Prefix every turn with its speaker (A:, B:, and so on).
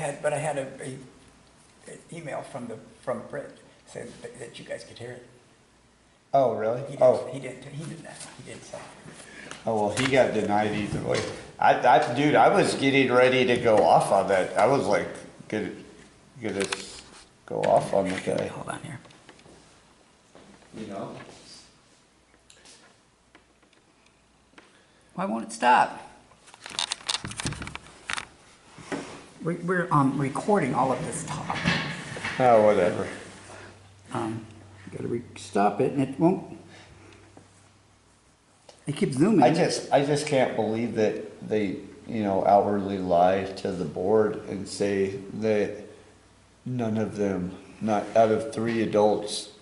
A: had, but I had a, a, an email from the, from Brett, said that- that you guys could hear it.
B: Oh, really?
A: He didn't,
B: Oh,
A: he didn't, he didn't, he didn't say.
B: oh, well, he got denied either way. I, I, dude, I was getting ready to go off on that. I was like, gonna, gonna s- go off on the guy.
A: Hold on here.
C: You know?
A: Why won't it stop? We, we're, um, recording all of this talk.
B: Oh, whatever.
A: Um, gotta re, stop it and it won't. It keeps zooming.
B: I just, I just can't believe that they, you know, outwardly lie to the board and say that none of them, not out of three adults,